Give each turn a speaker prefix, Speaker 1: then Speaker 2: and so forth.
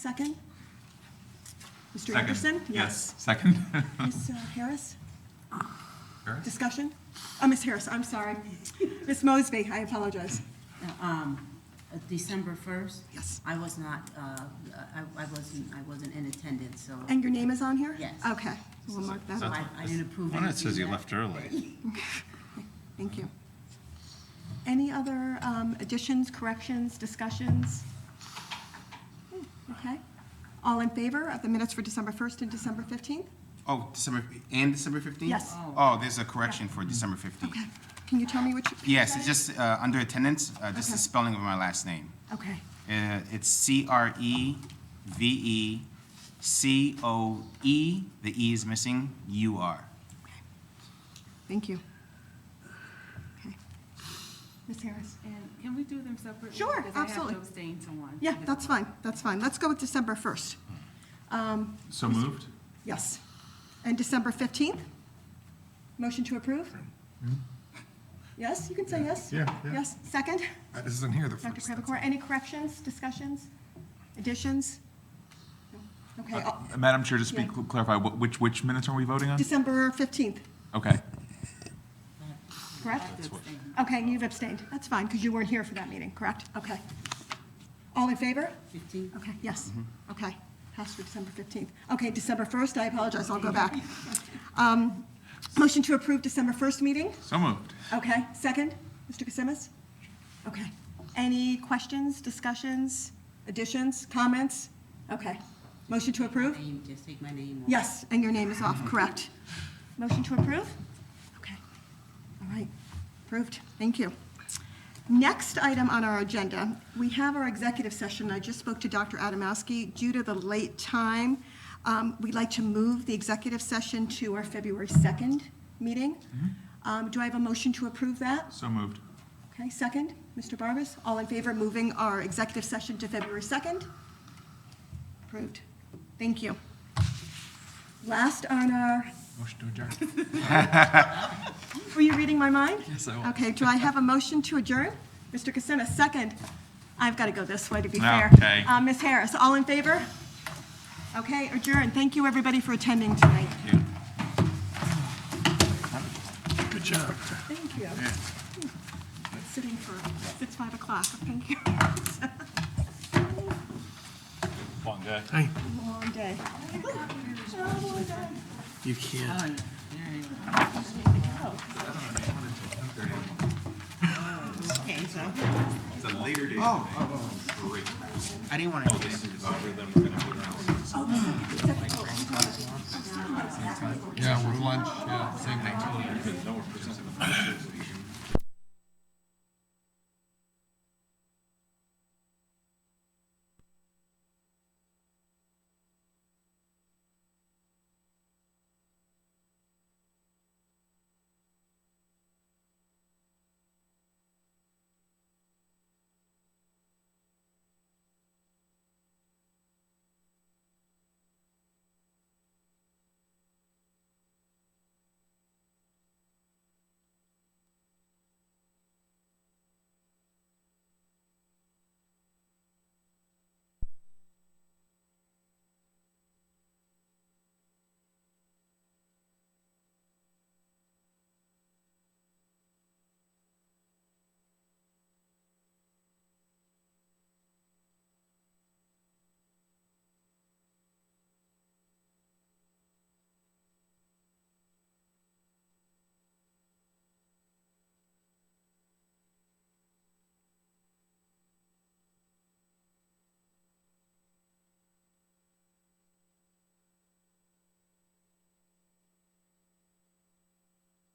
Speaker 1: Second? Mr.
Speaker 2: Second.
Speaker 1: Anderson?
Speaker 2: Second?
Speaker 1: Ms. Harris?
Speaker 2: Sure.
Speaker 1: Discussion? Uh, Ms. Harris, I'm sorry. Ms. Mosby, I apologize.
Speaker 3: um, uh, December 1st.
Speaker 1: Yes.
Speaker 3: I was not, uh, I I wasn't, I wasn't in attendance, so
Speaker 1: And your name is on here?
Speaker 3: Yes.
Speaker 1: Okay, we'll mark that
Speaker 3: so
Speaker 1: off.
Speaker 3: I I didn't approve
Speaker 4: One, it
Speaker 3: anything.
Speaker 4: says you
Speaker 3: that-
Speaker 4: left early.
Speaker 1: Thank you. Any other um, additions, corrections, discussions? Okay. All in favor of the minutes for December 1st and December 15th?
Speaker 5: Oh, December, and December 15th?
Speaker 1: Yes.
Speaker 5: Oh, there's a correction for December 15th.
Speaker 1: Okay. Can you tell me which?
Speaker 5: Yes, it's just uh, under attendance, uh, just
Speaker 1: Okay.
Speaker 5: the spelling of my last name.
Speaker 1: Okay.
Speaker 5: Uh, It's E C-R-E-V-E-C-O-E, the E is missing, U-R.
Speaker 1: Thank you. Okay. Ms. Harris?
Speaker 6: And can we do them separately?
Speaker 1: Sure,
Speaker 6: Because I
Speaker 1: absolutely.
Speaker 6: have to abstain to one.
Speaker 1: Yeah, that's fine, that's fine. Let's go with December 1st. Um,
Speaker 2: So moved?
Speaker 1: Yes. And December 15th? Motion to approve? Yes, you can say yes?
Speaker 2: Hmm? Yeah, yeah.
Speaker 1: Yes, second?
Speaker 2: I isn't here the
Speaker 1: Dr. Krabakor, any corrections, discussions, additions? No. Okay, uh,
Speaker 2: Madam Chair, just be
Speaker 1: Yeah.
Speaker 2: cl- clarify, wh- which, which minutes are we voting on?
Speaker 1: December 15th,
Speaker 2: Okay.
Speaker 1: correct?
Speaker 6: That's abstain.
Speaker 1: Okay, and you've abstained. That's fine, because you weren't here for that meeting, correct? Okay. All in favor?
Speaker 3: 15?
Speaker 1: Okay, yes, okay. Passed for December 15th. Okay, December 1st, I apologize, I'll go back. Um, Motion to approve December 1st meeting?
Speaker 2: So moved.
Speaker 1: Okay, second, Mr. Kasimis? Okay. Any questions, discussions, additions, comments? Okay. Motion to approve?
Speaker 3: Name, Just take my name off.
Speaker 1: Yes, and your name is off, correct. Motion to approve? Okay. All right, approved, thank you. Next item on our agenda, we have our executive session. I just spoke to Dr. Adamowski. Due to the late time, um, we'd like to move the executive session to our February 2nd meeting. Um, Do I have a motion to approve that?
Speaker 2: So moved.
Speaker 1: Okay, second, Mr. Barbas, all in favor of moving our executive session to February 2nd? Approved. Thank you. Last on our,
Speaker 2: Motion to adjourn.
Speaker 1: were you reading my mind?
Speaker 2: Yes, I was.
Speaker 1: Okay, do I have a motion to adjourn? Mr. Kasemis, second. I've got to go this way to be fair.
Speaker 2: Ah, Okay.
Speaker 1: Uh, Ms. Harris, all in favor? Okay, adjourned. Thank you, everybody, for attending tonight.
Speaker 2: Yeah.
Speaker 4: Good job.
Speaker 1: Thank you. Sitting for, it's 5 o'clock, thank you.
Speaker 2: Long day.
Speaker 1: Long day.
Speaker 4: You can't.
Speaker 3: Oh, yeah. There you go. Okay, so.
Speaker 2: It's a later date.
Speaker 5: I didn't want to.
Speaker 2: This is over them.